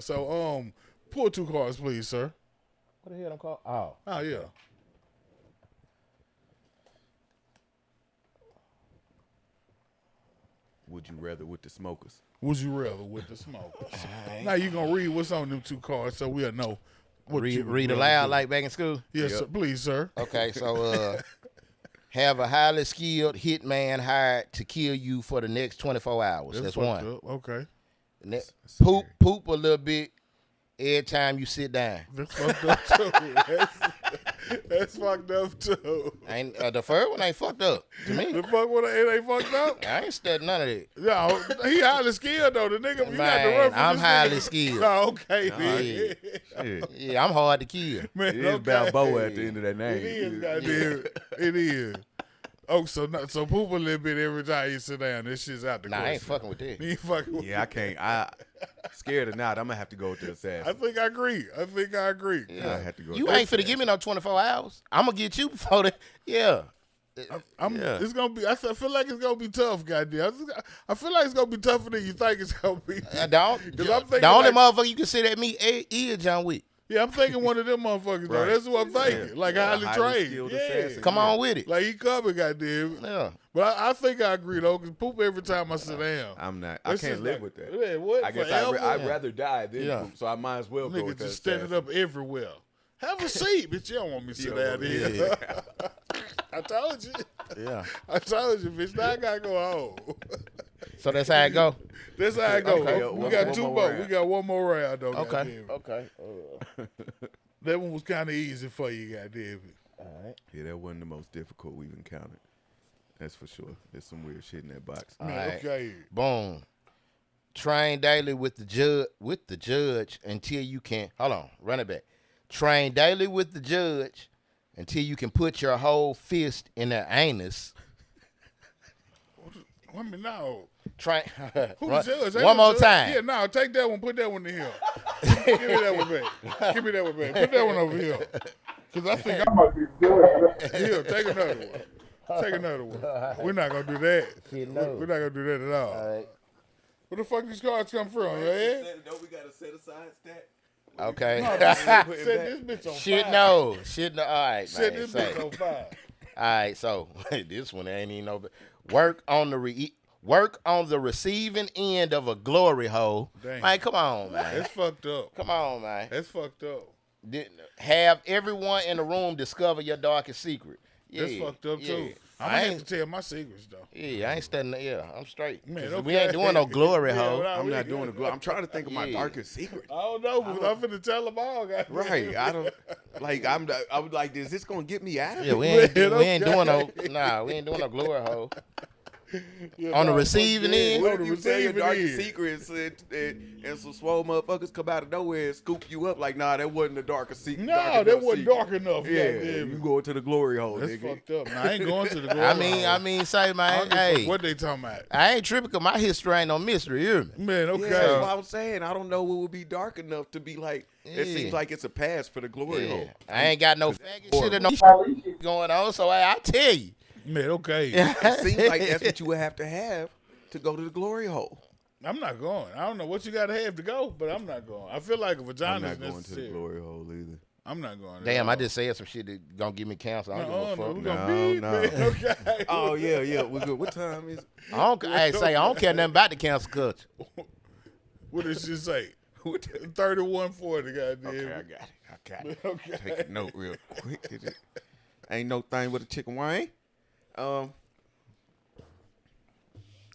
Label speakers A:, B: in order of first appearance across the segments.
A: So um, pull two cards, please, sir.
B: What the hell I'm called? Oh,
A: Oh yeah.
C: Would you rather with the smokers?
A: Would you rather with the smokers? Now you gonna read what's on them two cards, so we'll know. What
D: Read,
A: you would
D: read
A: rather
D: aloud
A: do.
D: like back in school.
A: Yes, sir. Please, sir.
D: Okay, so uh, have a highly skilled hitman hired to kill you for the next 24 hours. That's,
A: fucked
D: one.
A: up. Okay.
D: Ne- poop, poop a little bit every time you sit down.
A: That's fucked up too. That's, that's fucked up too.
D: Ain't uh, the first one ain't fucked up to
A: The
D: me.
A: fuck what it ain't fucked up?
D: I ain't studying none of that.
A: No, he highly skilled though. The nigga, you got to
D: Man,
A: run from
D: I'm
A: this
D: highly
A: nigga.
D: skilled.
A: Oh, okay, then.
C: Shit.
D: Yeah, I'm hard to kill.
A: man.
C: It is
A: okay.
C: Balboa at the end of that name.
A: It is, goddamn. It is. Oh, so not, so poop a little bit every time you sit down. This shit's out the
D: Nah, I ain't
A: question.
D: fucking with that.
A: You ain't fucking with
C: Yeah, I can't. I scared or not, I'm gonna have to go with the
A: I
C: assassin.
A: think I agree. I think I agree.
C: I have to go.
D: You
C: with the
D: ain't finna give me no 24 hours. I'm gonna get you before that. Yeah.
A: I'm,
D: Yeah.
A: It's gonna be. I feel I feel like it's gonna be tough, goddamn. I feel like it's gonna be tougher than you think it's gonna be.
D: I Uh, don't.
A: 'Cause I'm thinking
D: The only
A: like-
D: motherfucker you can sit at me eh, is John Wick.
A: Yeah, I'm thinking one of them motherfuckers though.
C: Right.
A: That's what I'm thinking. Like
C: Yeah,
A: highly,
C: highly
A: trained.
C: skilled
A: Yeah.
C: assassin.
D: Come on with it.
A: Like he coming, goddamn.
D: Yeah.
A: But I, I think I agree though, cause poop every time I sit down.
C: Uh, I'm not.
A: That's
C: I can't
A: just
C: live
A: like-
C: with that.
A: Man, what,
C: I guess I
A: forever?
C: would rather die than
D: Yeah.
C: poop, so I might as well go with
A: Nigga
C: the
A: just standing
C: assassin.
A: up everywhere. Have a seat, bitch. You don't want me to sit down
C: don't want
A: here. I told you.
D: Yeah.
A: I told you, bitch. Now I gotta go home.
D: So that's how it go.
A: That's how I go.
C: Okay,
A: we
C: one-
A: got
C: one
A: two
C: more
A: more.
C: round.
A: We got one more round though.
D: Okay.
A: goddamn it.
B: okay.
A: That one was kind of easy for you, goddamn it.
B: all right.
C: Yeah, that wasn't the most difficult we've encountered. That's for sure. There's some weird shit in that box.
D: All right.
A: Okay.
D: Boom. Train daily with the judge with the judge until you can hold on, run it back. Train daily with the judge until you can put your whole fist in their anus.
A: I mean, no.
D: Train
A: Who the
D: Run-
A: judge? Ain't
D: one
A: no
D: more
A: judge.
D: time.
A: Yeah, no, take that one. Put that one in here. Give me that one back. Give me that one back. Put that one over here. Because I think I might be doing it. Here, take another one. Take another one. We're not going to do that.
D: He
A: We're
D: knows.
A: we're not going to do that at all.
D: All right.
A: Where the fuck these cards come from, eh? your head?
C: we gotta set aside stat?
D: Okay.
A: Set this bitch on
D: Shit
A: fire.
D: no. Shit no. All right,
A: Set
D: man.
A: this
D: Say.
A: bitch on fire.
D: All right, so this one ain't even no work on the re- work on the receiving end of a glory hole.
A: Dang.
D: Man, come on, man.
A: That's fucked up.
D: Come on, man.
A: That's fucked up.
D: Did- Have everyone in the room discover your darkest secret. Yeah,
A: That's fucked up,
D: yeah.
A: too. I'm
D: I
A: going to have
D: ain't,
A: to tell my secrets, though.
D: yeah, I ain't studying. Yeah, I'm straight.
A: Man,
D: 'Cause We
A: okay.
D: ain't doing no glory
A: Yeah,
D: hole.
A: well, I-
C: I'm
A: we
C: not
A: good.
C: doing the glove. I'm trying to think of my
D: Yeah.
C: darkest secret.
A: I don't know, but I'm finna tell them all, guys.
C: Right. I don't like I'm not- I was like, is this gonna get me out of
D: yeah,
C: it?
D: we ain't,
A: Man,
D: do- we ain't doing no.
A: okay.
D: Nah, we ain't doing no glory hole.
A: Yeah,
D: On
A: nah,
D: the
A: fuck
D: receiving
A: that.
D: end?
A: On
C: What
A: the
C: if you tell your
A: receiving
C: darkest
A: end.
C: secrets and, and, and some swole motherfuckers come out of nowhere and scoop you up? Like, nah, that wasn't the darkest secret.
A: No,
C: dark
A: that
C: enough
A: wasn't
C: secret.
A: dark enough.
C: Yeah,
A: goddamn
C: you
A: it.
C: go to the glory hole,
A: That's
C: nigga.
A: fucked up. Nah, I ain't going to the glory
D: I mean,
A: hole.
D: I mean, say,
A: I don't
D: man,
A: give a fuck
D: hey,
A: what they talking about?
D: I ain't tripping 'cause my history ain't no mystery. You hear me?
A: Man, okay.
C: Yeah, that's what I'm saying. I don't know what would be dark enough to be like. It
D: Yeah.
C: seems like it's a pass for the glory
D: Yeah.
C: hole.
D: I ain't got no faggot shit or no going on, so I, I tell you.
A: Man, okay.
C: It seems like that's what you would have to have to go to the glory hole.
A: I'm not going. I don't know what you got to have to go, but I'm not going. I feel like a
C: I'm
A: vagina
C: not
A: is
C: going to the
A: necessary.
C: glory hole either.
A: I'm not going. at
D: Damn,
A: all.
D: I just said some shit that gonna give me cancer. I
A: No,
D: don't give
A: no,
D: a
A: we
D: fuck.
A: gonna
C: No,
A: beep
C: no.
A: it, Okay.
C: Oh yeah, yeah, we're good. What time is?
D: I don't, hey, say I don't care nothing about the cancer culture.
A: What does she say? Thirty-one forty. Goddamn.
C: Okay, I
A: it.
C: got it. I got it.
A: Okay.
C: Take a note real quick. Is it- Ain't no thing with a chicken wing. Um,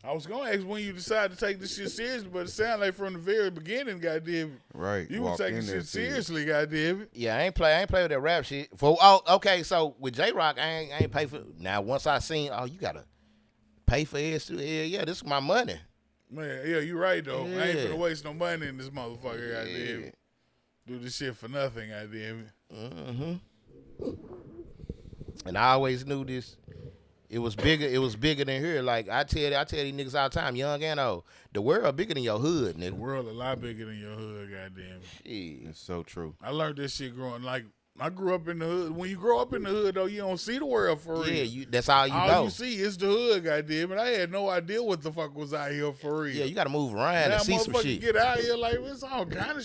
A: I was gonna ask when you decided to take this shit seriously, but it sounded like from the very beginning, goddamn. it,
C: right.
A: You were
C: walked
A: taking
C: in there,
A: shit
C: see it.
A: seriously, goddamn. it.
D: Yeah, I ain't play. I ain't play with that rap shit. For oh, okay. So with J Rock, I ain't, I ain't pay for. Now once I seen, oh, you gotta pay for this. Yeah, yeah, this is my money.
A: Man, yeah, you right though. I ain't
D: Yeah.
A: finna waste no money in this motherfucker, goddamn.
D: Yeah.
A: it. Do this shit for nothing, goddamn. it.
D: And I always knew this. It was bigger. It was bigger than here. Like I tell, I tell these niggas all the time, young and old, the world bigger than your hood,
A: The
D: nigga.
A: world a lot bigger than your hood, goddamn. it.
D: Shit.
C: It's so true.
A: I learned this shit growing like I grew up in the hood. When you grow up in the hood though, you don't see the world for real.
D: Yeah, you. That's all you
A: All
D: know.
A: you see is the hood, goddamn. And I had no idea what the fuck was out here for real.
D: yeah, you gotta move around
A: now
D: and see some
A: motherfucker
D: shit.
A: get out here like it's all kind of